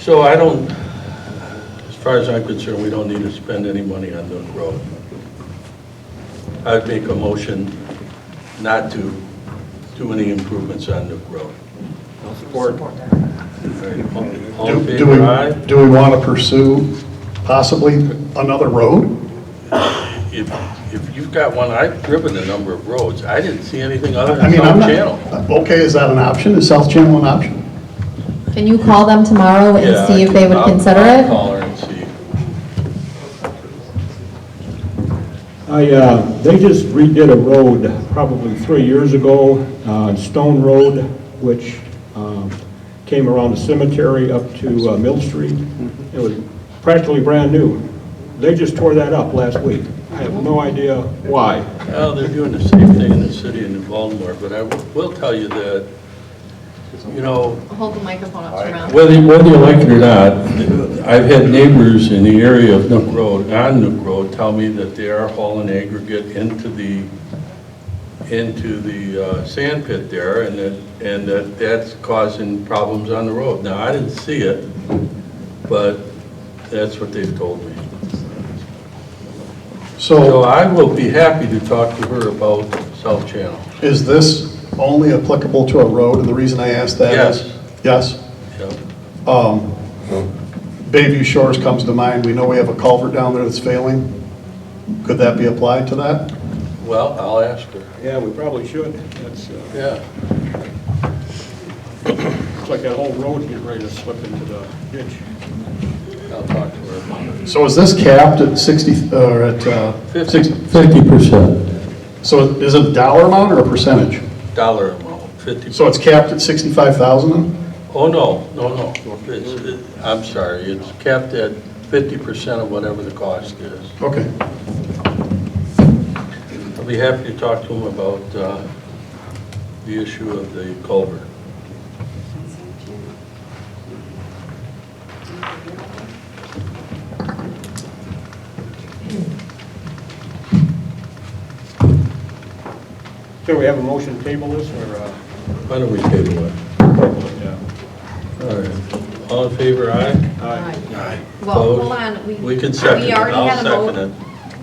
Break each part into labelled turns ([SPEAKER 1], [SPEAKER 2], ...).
[SPEAKER 1] So I don't, as far as I'm concerned, we don't need to spend any money on the road. I'd make a motion not to do any improvements on Nook Road.
[SPEAKER 2] Support.
[SPEAKER 1] All right, all- All in
[SPEAKER 3] Do do we,
[SPEAKER 1] favor, aye?
[SPEAKER 3] do we want to pursue possibly another road?
[SPEAKER 1] If, if you've got one, I've driven a number of roads, I didn't see anything other
[SPEAKER 3] I
[SPEAKER 1] than
[SPEAKER 3] mean, I'm
[SPEAKER 1] South
[SPEAKER 3] not,
[SPEAKER 1] Uh, Channel.
[SPEAKER 3] okay, is that an option? Is South Channel an option?
[SPEAKER 4] Can you call them tomorrow
[SPEAKER 1] Yeah,
[SPEAKER 4] and see
[SPEAKER 1] I
[SPEAKER 4] if they
[SPEAKER 1] can-
[SPEAKER 4] would
[SPEAKER 1] I'll-
[SPEAKER 4] consider
[SPEAKER 1] I'll
[SPEAKER 4] it?
[SPEAKER 1] call her and see.
[SPEAKER 5] I, uh, they just redid a road probably three years ago, uh, Stone Road, which um, came around the cemetery up to uh, Mill Street. It was practically brand new. They just tore that up last week. I have no idea why.
[SPEAKER 1] Well, they're doing the same thing in the city and in Baltimore, but I will tell you that, you know,
[SPEAKER 4] Hold the microphone up to your mouth.
[SPEAKER 1] Whether, whether you like it or not, I've had neighbors in the area of Nook Road, on Nook Road, tell me that they are hauling aggregate into the, into the uh, sand pit there, and that, and that that's causing problems on the road. Now, I didn't see it, but that's what they've told me. So
[SPEAKER 3] So
[SPEAKER 1] I will be happy to talk to her about South Channel.
[SPEAKER 3] is this only applicable to a road? And the reason I ask that is... Yes. Yes?
[SPEAKER 1] Yep.
[SPEAKER 3] Um, Bayview Shores comes to mind. We know we have a culvert down there that's failing. Could that be applied to that?
[SPEAKER 1] Well, I'll ask her.
[SPEAKER 5] Yeah, we probably should. That's, uh,
[SPEAKER 1] Yeah.
[SPEAKER 5] it's like that whole road getting ready to slip into the ditch.
[SPEAKER 1] I'll talk to her about it.
[SPEAKER 3] So is this capped at 60, or at, uh,
[SPEAKER 1] Fifty.
[SPEAKER 3] 60
[SPEAKER 6] Fifty percent.
[SPEAKER 3] so is it a dollar amount or a percentage?
[SPEAKER 1] Dollar amount, fifty
[SPEAKER 3] So it's capped at 65,000 then?
[SPEAKER 1] Oh, no, no, no. It's- it- I'm sorry, it's capped at 50% of whatever the cost is.
[SPEAKER 3] Okay.
[SPEAKER 1] I'll be happy to talk to him about uh, the issue of the culvert.
[SPEAKER 5] So we have a motion to table this or, uh,
[SPEAKER 1] Why don't we table it?
[SPEAKER 5] yeah.
[SPEAKER 1] All right. All in favor, aye?
[SPEAKER 5] Aye.
[SPEAKER 1] Aye.
[SPEAKER 4] Well, hold on, we.
[SPEAKER 1] We can second
[SPEAKER 4] we
[SPEAKER 1] it.
[SPEAKER 4] already
[SPEAKER 1] I'll
[SPEAKER 4] had a mo-
[SPEAKER 1] second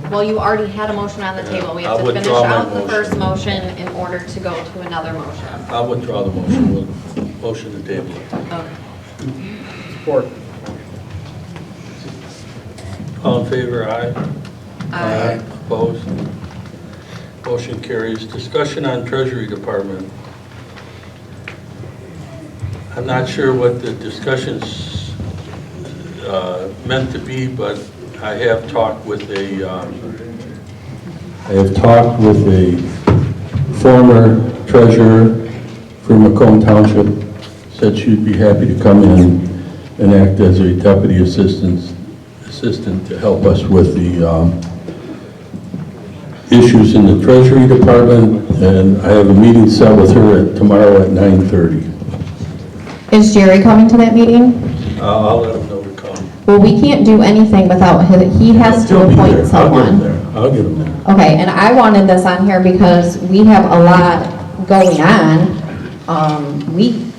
[SPEAKER 1] it.
[SPEAKER 4] Well, you already had a motion on the
[SPEAKER 1] Yeah,
[SPEAKER 4] table. We
[SPEAKER 1] I'll
[SPEAKER 4] have to finish
[SPEAKER 1] withdraw my
[SPEAKER 4] out the
[SPEAKER 1] motion.
[SPEAKER 4] first motion in order to go to another motion.
[SPEAKER 1] I'll withdraw the motion. We'll Motion to table it.
[SPEAKER 4] Okay.
[SPEAKER 5] Support.
[SPEAKER 1] All in favor, aye?
[SPEAKER 4] Uh,
[SPEAKER 1] Opposed? Motion carries. Discussion on Treasury Department. I'm not sure what the discussions uh, meant to be, but I have talked with a, um,
[SPEAKER 6] I have talked with the former treasurer for Macomb Township, said she'd be happy to come in and act as a deputy assistant, assistant to help us with the um, issues in the Treasury Department, and I have a meeting set with her at- tomorrow at 9:30.
[SPEAKER 4] Is Jerry coming to that meeting?
[SPEAKER 1] I'll I'll let him know to come.
[SPEAKER 4] Well, we can't do anything without, his- he has to
[SPEAKER 6] He'll be there. I'll get
[SPEAKER 4] appoint
[SPEAKER 6] him
[SPEAKER 4] someone.
[SPEAKER 6] there. I'll get him there.
[SPEAKER 4] Okay, and I wanted this on here because we have a lot going on. Um, we,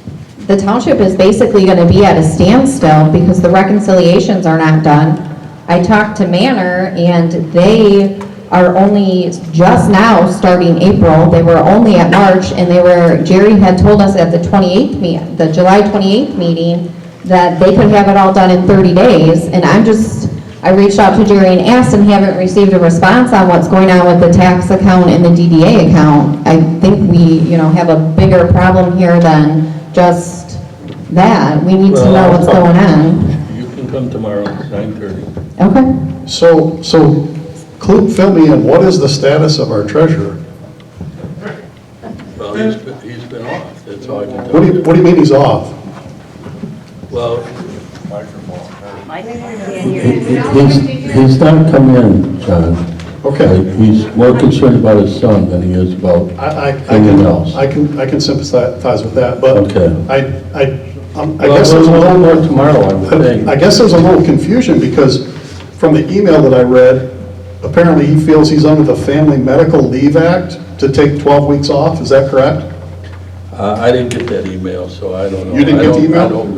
[SPEAKER 4] the township is basically gonna be at a standstill because the reconciliations are not done. I talked to Manor and they are only just now starting April. They were only at March and they were, Jerry had told us at the twenty-eighth me, the July twenty-eighth meeting that they could have it all done in thirty days. And I'm just, I reached out to Jerry and asked and haven't received a response on what's going on with the tax account and the DDA account. I think we, you know, have a bigger problem here than just that. We need to know what's going on.
[SPEAKER 1] You can come tomorrow, it's 9:30.
[SPEAKER 4] Okay.
[SPEAKER 3] So, so Clue, fill me in, what is the status of our treasurer?
[SPEAKER 1] Well, he's been- he's been off, that's all I can
[SPEAKER 3] What
[SPEAKER 1] tell
[SPEAKER 3] do you,
[SPEAKER 1] you.
[SPEAKER 3] what do you mean he's off?
[SPEAKER 1] Well,
[SPEAKER 6] He's, he's not come in, John. Uh,
[SPEAKER 3] Okay.
[SPEAKER 6] He's more concerned about his son than he is about,
[SPEAKER 3] I, I, I
[SPEAKER 6] Anything
[SPEAKER 3] can,
[SPEAKER 6] else?
[SPEAKER 3] I can, I can sympathize with that, but
[SPEAKER 6] Okay.
[SPEAKER 3] I, I, um, I
[SPEAKER 6] Well,
[SPEAKER 3] guess there's a
[SPEAKER 6] we'll know
[SPEAKER 3] little more
[SPEAKER 6] more tomorrow, I would think.
[SPEAKER 3] I guess there's a little confusion, because from the email that I read, apparently he feels he's under the Family Medical Leave Act to take 12 weeks off, is that correct?
[SPEAKER 1] uh, I didn't get that email, so I don't know.
[SPEAKER 3] You didn't
[SPEAKER 1] I
[SPEAKER 3] get the
[SPEAKER 1] don't- I
[SPEAKER 3] email?
[SPEAKER 1] don't